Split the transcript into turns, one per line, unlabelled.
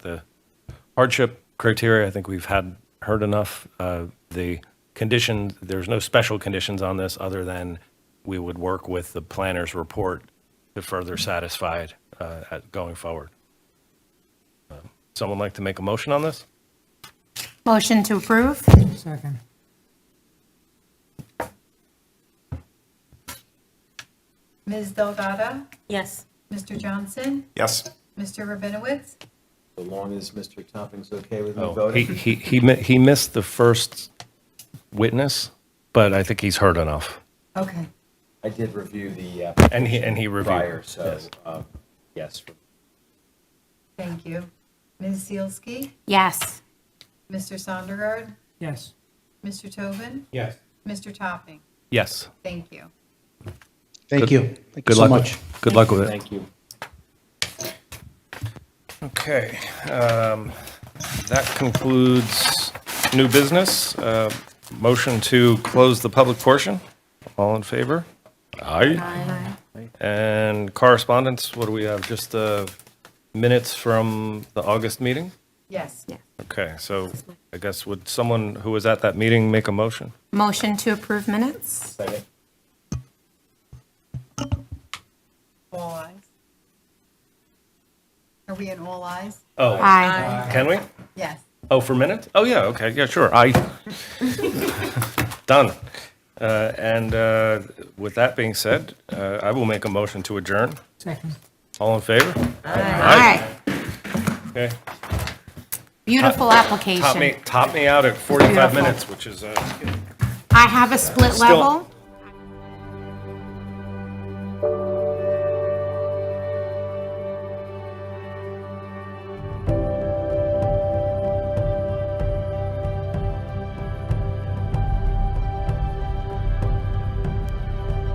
the hardship criteria, I think we've had, heard enough. Uh, The condition, there's no special conditions on this other than we would work with the planner's report to further satisfy it uh, at- going forward. Um, Someone like to make a motion on this?
Motion to approve?
Second.
Ms. Delgado,
Yes.
Mr. Johnson,
Yes.
Mr. Rabinowitz,
So long as Mr. Topping's okay with me
Oh, He,
voting?
he, he mi- he missed the first witness, but I think he's heard enough.
okay.
I did review the uh,
And he, and he reviewed.
prior, so,
Yes.
um, yes.
Thank you. Ms. Zielski,
Yes.
Mr. Sondergaard,
Yes.
Mr. Tobin,
Yes.
Mr. Topping.
Yes.
Thank you.
Thank
Good-
you. Thank you
Good
so
luck.
much.
with- Good luck with it.
Thank you.
Okay, um, that concludes new business. Uh, Motion to close the public portion. All in favor? Aye. And correspondence, what do we have? Just the minutes from the August meeting?
Yes.
Okay, so I guess would someone who was at that meeting make a motion?
Motion to approve minutes?
Second.
All eyes. Are we in all eyes?
Oh,
Aye.
can we?
Yes.
Oh, for minutes? Oh, yeah, okay, yeah, sure, I, done. Uh, And uh, with that being said, uh, I will make a motion to adjourn.
Second.
All in favor?
Aye.
Okay.
Beautiful
Top me,
application.
top me out at 45
Beautiful.
minutes, which is, uh,
I have a split
Still-
level.